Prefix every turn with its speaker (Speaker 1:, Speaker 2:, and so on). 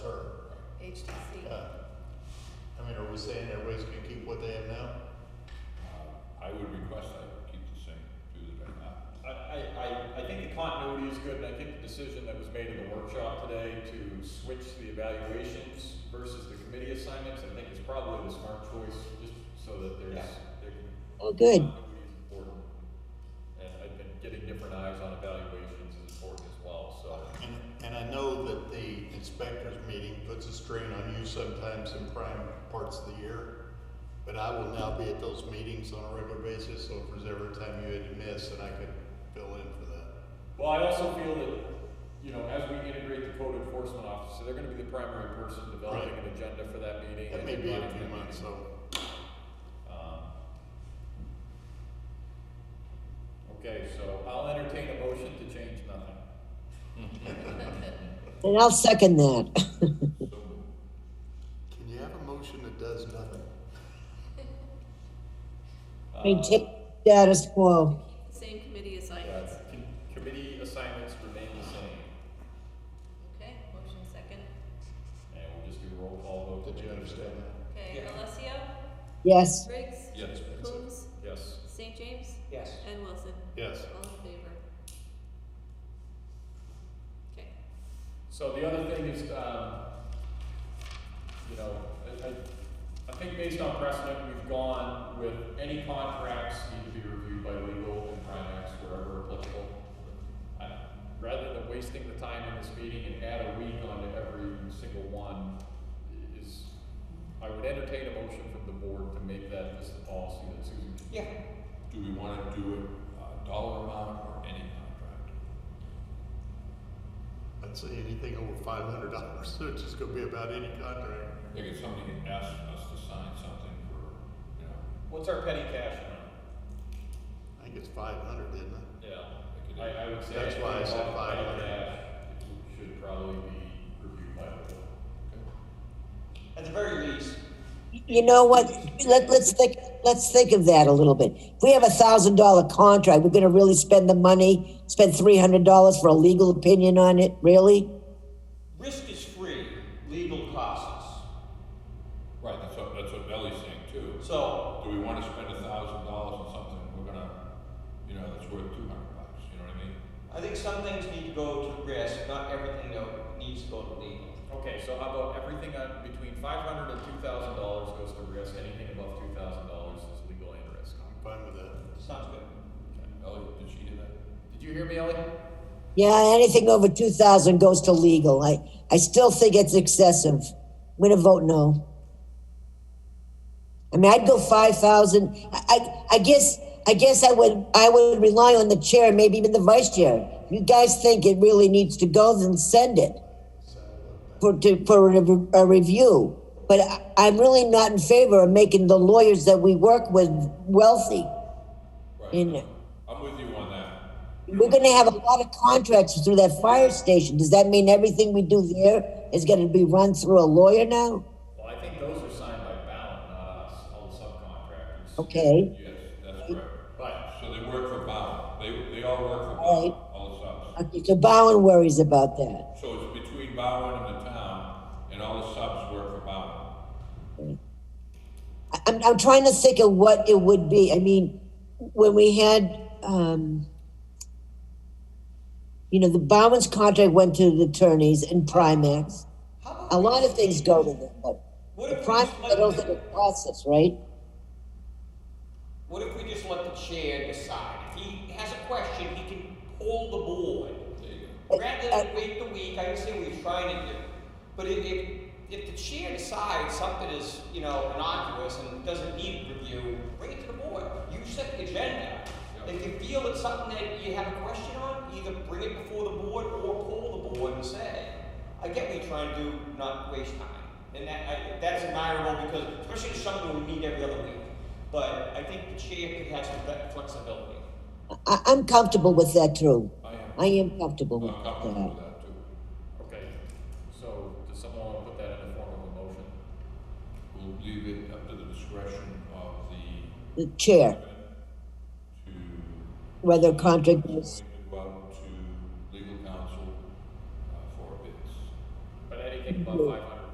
Speaker 1: HTC.
Speaker 2: Uh, I mean, are we saying everybody's gonna keep what they have now?
Speaker 3: Um, I would request I keep the same, do the right now.
Speaker 4: I, I, I, I think the continuity is good, and I think the decision that was made in the workshop today to switch the evaluations versus the committee assignments, I think is probably the smart choice, just so that there's, there can.
Speaker 5: Oh, good.
Speaker 4: Continuity is important. And I've been getting different eyes on evaluations is important as well, so.
Speaker 2: And, and I know that the inspectors meeting puts a strain on you sometimes in prime parts of the year, but I will now be at those meetings on a regular basis, so if there's ever a time you had to miss, then I could fill in for that.
Speaker 4: Well, I also feel that, you know, as we integrate the code enforcement officer, they're gonna be the primary person developing an agenda for that meeting.
Speaker 2: That
Speaker 4: and
Speaker 2: may be a
Speaker 4: running
Speaker 2: few
Speaker 4: that
Speaker 2: months,
Speaker 4: meeting.
Speaker 2: so.
Speaker 4: Um, Okay, so I'll entertain a motion to change nothing.
Speaker 5: And I'll second that.
Speaker 2: Can you have a motion that does nothing?
Speaker 5: Maintain status quo.
Speaker 1: Same committee
Speaker 4: Uh,
Speaker 1: assignments.
Speaker 4: yeah, com- Committee assignments remain the same,
Speaker 1: Okay, motion second.
Speaker 4: and we'll just do a roll call vote. to
Speaker 2: Did you
Speaker 4: make sure
Speaker 2: understand that?
Speaker 1: Okay,
Speaker 6: Yeah.
Speaker 1: Alessio,
Speaker 5: Yes.
Speaker 1: Briggs,
Speaker 3: Yes.
Speaker 1: Coombs,
Speaker 4: that- Yes.
Speaker 1: St. James,
Speaker 6: Yes.
Speaker 1: and Wilson.
Speaker 2: Yes.
Speaker 1: All in favor. Okay.
Speaker 4: So the other thing is, um, you know, I, I, I think based on precedent, we've gone with any contracts need to be reviewed by legal and Primex wherever applicable. I- Rather than wasting the time in this meeting and add a week onto every single one is, I would entertain a motion from the board to make that just the policy that Susan.
Speaker 6: Yeah.
Speaker 3: Do we wanna do it, uh, dollar amount or any contract?
Speaker 2: I'd say anything over five hundred dollars, so it's just gonna be about any contract.
Speaker 3: I think if somebody asked us to sign something for, you know,
Speaker 4: What's our petty cash amount?
Speaker 2: I think it's five hundred, isn't it?
Speaker 4: Yeah, I, I would say.
Speaker 2: That's why I said
Speaker 4: anything
Speaker 2: five hundred.
Speaker 4: involving cash Should probably be reviewed by the board.
Speaker 6: At the very least,
Speaker 5: You know what? Let, let's think. Let's think of that a little bit. If we have a thousand dollar contract, we're going to really spend the money. Spend three hundred dollars for a legal opinion on it. Really?
Speaker 6: risk is free, legal costs.
Speaker 3: right, that's what, that's what Ellie's saying too.
Speaker 6: So
Speaker 3: Do we wanna spend a thousand dollars on something we're gonna, you know, that's worth two hundred bucks, you know what I mean?
Speaker 6: I think some things need to go to risk, not everything though needs to go to legal.
Speaker 4: Okay, so how about everything on, between five hundred and two thousand dollars goes to risk, anything above two thousand dollars is legal and risk.
Speaker 2: I'm fine with that.
Speaker 6: Sounds good.
Speaker 3: Ellie, did she do that?
Speaker 4: Did you hear me, Ellie?
Speaker 5: Yeah. Anything over two thousand goes to legal. I I still think it's excessive. I'm going to vote no. I mean, I'd go five thousand. I, I I guess I guess I would I would rely on the chair, maybe even the vice chair. If you guys think it really needs to go, then send it. for to, for a, re- a review. But I, I'm really not in favor of making the lawyers that we work with wealthy.
Speaker 3: Right.
Speaker 5: In
Speaker 3: I'm with you on that.
Speaker 5: we're going to have a lot of contracts through that fire station. Does that mean everything we do there is going to be run through a lawyer now?
Speaker 4: Well, I think those are signed by Ballot, not us, all the subcontractors.
Speaker 5: Okay.
Speaker 3: Yes, that's correct.
Speaker 4: But,
Speaker 3: So they work for Bound, they, they all work for
Speaker 5: Right.
Speaker 3: Bound, all the subs.
Speaker 5: Okay, so Bowen worries about that.
Speaker 3: So it's between Bowen and the town, and all the subs work for Bowen.
Speaker 5: I- I'm, I'm trying to think of what it would be. I mean, when we had, um, you know, the Bowen's contract went to the attorneys and Primax.
Speaker 6: How about
Speaker 5: A lot of
Speaker 6: we-
Speaker 5: things go to them, but
Speaker 6: What
Speaker 5: The
Speaker 6: if we
Speaker 5: prime,
Speaker 6: just
Speaker 5: I don't
Speaker 6: let
Speaker 5: think
Speaker 6: the,
Speaker 5: it process, right?
Speaker 6: what if we just let the chair decide? If he has a question, he can pull the board.
Speaker 3: There you go.
Speaker 6: Rather than wait the week, I understand what you're trying to do, but if, if, if the chair decides something is, you know, innocuous and doesn't need review, bring it to the board. You set the agenda. If you feel it's something that you have a question on, either bring it before the board or pull the board and say, I get what you're trying to do, not waste time. And that, I, that's admirable because especially it's something we meet every other week. But I think the chair could have some fle- flexibility.
Speaker 5: I, I'm comfortable with that too.
Speaker 3: I am,
Speaker 5: I am comfortable with
Speaker 3: I'm comfortable with
Speaker 5: that.
Speaker 3: that too.
Speaker 4: okay, so does someone want to put that in the form of a motion?
Speaker 3: We'll leave it up to the discretion of the,
Speaker 5: The chair,
Speaker 3: to,
Speaker 5: whether a contract is,
Speaker 3: go out to legal counsel uh, for bids.
Speaker 4: But anything above five hundred